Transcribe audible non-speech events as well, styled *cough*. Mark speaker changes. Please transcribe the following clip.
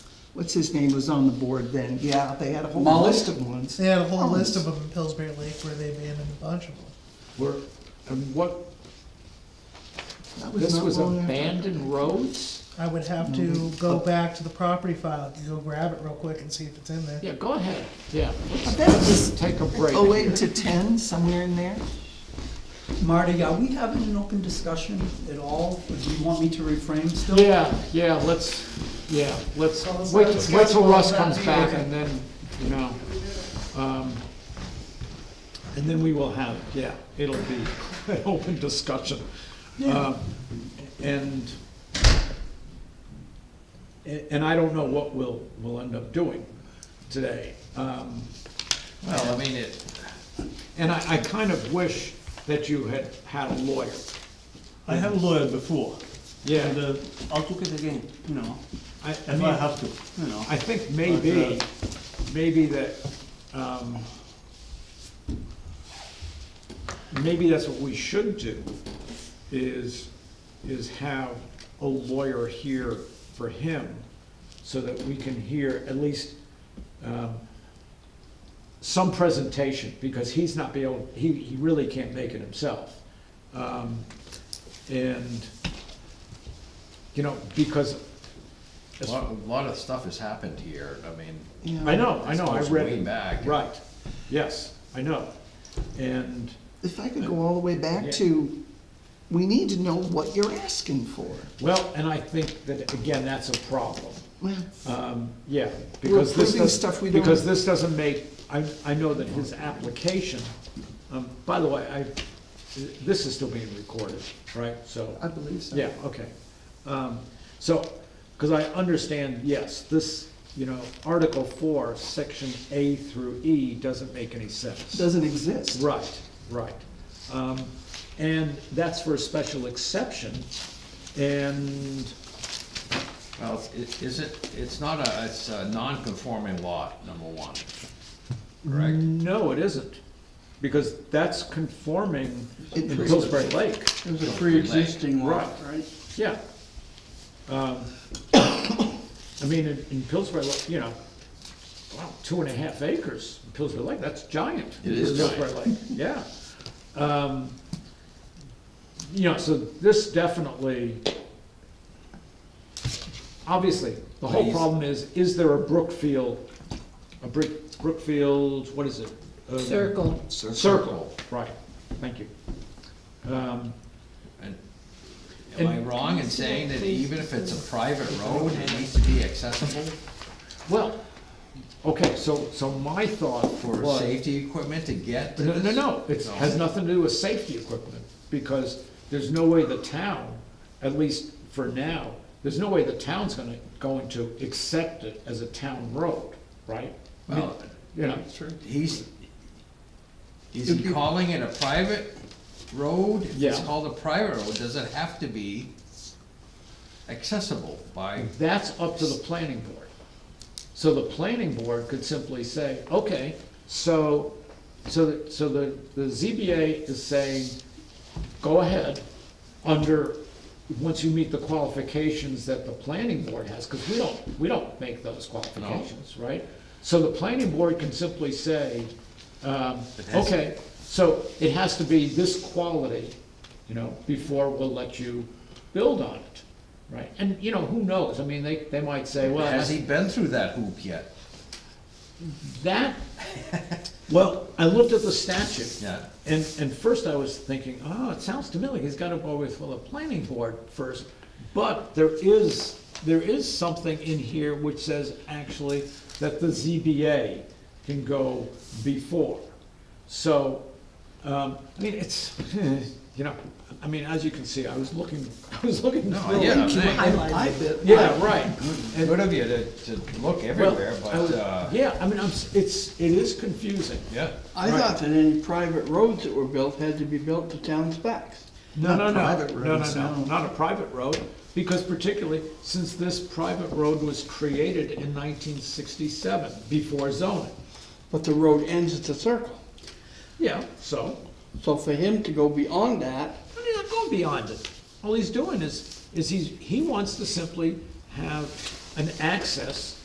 Speaker 1: what's his name was on the board then, yeah, they had a whole
Speaker 2: Mullen?
Speaker 1: list of ones.
Speaker 3: They had a whole list of them in Pillsbury Lake where they abandoned a bunch of them.
Speaker 4: Where, and what,
Speaker 1: That
Speaker 4: this
Speaker 1: not
Speaker 4: was
Speaker 1: long after-
Speaker 4: abandoned roads?
Speaker 3: I would have to go back to the property file, go grab it real quick and see if it's in there.
Speaker 4: Yeah, go ahead, yeah,
Speaker 1: I
Speaker 4: let's
Speaker 1: bet it was
Speaker 4: take a break.
Speaker 1: oh eight to ten, somewhere in there.
Speaker 2: Marty, are we having an open discussion at all? Or do you want me to reframe still?
Speaker 4: Yeah, yeah, let's, yeah, let's,
Speaker 3: So let's
Speaker 4: wait,
Speaker 3: not discuss
Speaker 4: wait till
Speaker 3: all
Speaker 4: Russ
Speaker 3: that
Speaker 4: comes
Speaker 3: here.
Speaker 4: back and then, you know. um, And then we will have, yeah, it'll be *laughs* an open discussion. Um, And, and I don't know what we'll, we'll end up doing today. Um,
Speaker 5: Well, I mean, it,
Speaker 4: And I, I kind of wish that you had had a lawyer.
Speaker 6: I have a lawyer before, and
Speaker 4: Yeah,
Speaker 6: uh, I'll look it again, you know,
Speaker 4: I, I
Speaker 6: if I
Speaker 4: mean,
Speaker 6: have to, you know.
Speaker 4: I think maybe, maybe that, um, maybe that's what we should do, is, is have a lawyer here for him, so that we can hear at least, um, some presentation, because he's not be able, he, he really can't make it himself. Um, And, you know, because
Speaker 5: a lot, a lot of stuff has happened here, I mean.
Speaker 1: Yeah.
Speaker 4: I know, I know, I
Speaker 5: Goes
Speaker 4: read
Speaker 5: way
Speaker 4: it.
Speaker 5: back.
Speaker 4: Right, yes, I know. And,
Speaker 1: If I could go all the way back to, we need to know what you're asking for.
Speaker 4: well, and I think that, again, that's a problem.
Speaker 1: Well,
Speaker 4: Um, Yeah, because this
Speaker 1: approving
Speaker 4: does-
Speaker 1: stuff we don't-
Speaker 4: Because this doesn't make, I, I know that his application, um, by the way, I, this is still being recorded, right? So.
Speaker 1: I believe so.
Speaker 4: Yeah, okay. Um, So, because I understand, yes, this, you know, Article Four, Section A through E doesn't make any sense.
Speaker 1: Doesn't exist.
Speaker 4: Right, right. Um, And that's for a special exception, and,
Speaker 5: Well, it, is it, it's not a, it's a non-conforming lot, number one,
Speaker 4: Mm,
Speaker 5: correct?
Speaker 4: no, it isn't, because that's conforming in
Speaker 1: It-
Speaker 4: Pillsbury Lake,
Speaker 6: It was a pre-existing lot,
Speaker 4: Right.
Speaker 6: right?
Speaker 4: yeah. Um, *coughs* I mean, in in Pillsbury, Lake, you know, wow, two and a half acres, in Pillsbury Lake, that's giant.
Speaker 5: It is
Speaker 4: for Pillsbury Lake, yeah. Um, You know, so this definitely, obviously, the whole
Speaker 5: Please.
Speaker 4: problem is, is there a Brookfield, a Brick, Brookfield, what is it? Um,
Speaker 7: Circle.
Speaker 4: Circle, right, thank you. Um,
Speaker 5: And Am I wrong in saying that even if it's a private road, it needs to be accessible
Speaker 4: Well, okay, so, so my thought
Speaker 5: for
Speaker 4: was-
Speaker 5: safety equipment to get to
Speaker 4: No,
Speaker 5: this?
Speaker 4: no, no, it has nothing to do with safety equipment, because there's no way the town, at least for now, there's no way the town's gonna, going to accept it as a town road, right? I mean,
Speaker 5: Well,
Speaker 4: You know,
Speaker 5: He's, is he calling it a private road? If It's
Speaker 4: Yeah.
Speaker 5: called a private road, does it have to be accessible by?
Speaker 4: that's up to the planning board. So the planning board could simply say, okay, so, so, the- so the, the ZBA is saying, go ahead, under, once you meet the qualifications that the planning board has, because we don't, we don't make those qualifications, right? So the planning board can simply say, um,
Speaker 5: It has-
Speaker 4: okay, so it has to be this quality, you know, before we'll let you build on it, right? And, you know, who knows, I mean, they, they might say, well,
Speaker 5: Has he been through that hoop yet? *laughs*
Speaker 4: that, well, I looked at the statute.
Speaker 5: Yeah.
Speaker 4: And, and first I was thinking, oh, it sounds to me like he's gotta go with, well, the planning board first. But there is, there is something in here which says actually that the ZBA can go before. So, um, I mean, it's, *laughs* you know, I mean, as you can see, I was looking, *laughs* I was looking.
Speaker 5: No,
Speaker 4: through it.
Speaker 5: yeah, thank-
Speaker 1: Highlighted it.
Speaker 4: Yeah, right. And-
Speaker 5: good of you to, to look
Speaker 4: well,
Speaker 5: everywhere,
Speaker 4: I was-
Speaker 5: but, uh,
Speaker 4: Yeah, I mean, I'm, s- it's, it is confusing.
Speaker 5: yeah.
Speaker 6: I thought that any private roads that were built had to be built to town specs.
Speaker 4: No, no,
Speaker 1: Not
Speaker 4: no,
Speaker 1: private
Speaker 4: no, no,
Speaker 1: roads,
Speaker 4: no,
Speaker 1: no.
Speaker 4: not a private road, because particularly since this private road was created in nineteen sixty-seven, before zoning.
Speaker 6: But the road ends at the circle.
Speaker 4: Yeah, so,
Speaker 6: So for him to go beyond that,
Speaker 4: I mean, I'm going beyond it. All he's doing is, is he's, he wants to simply have an access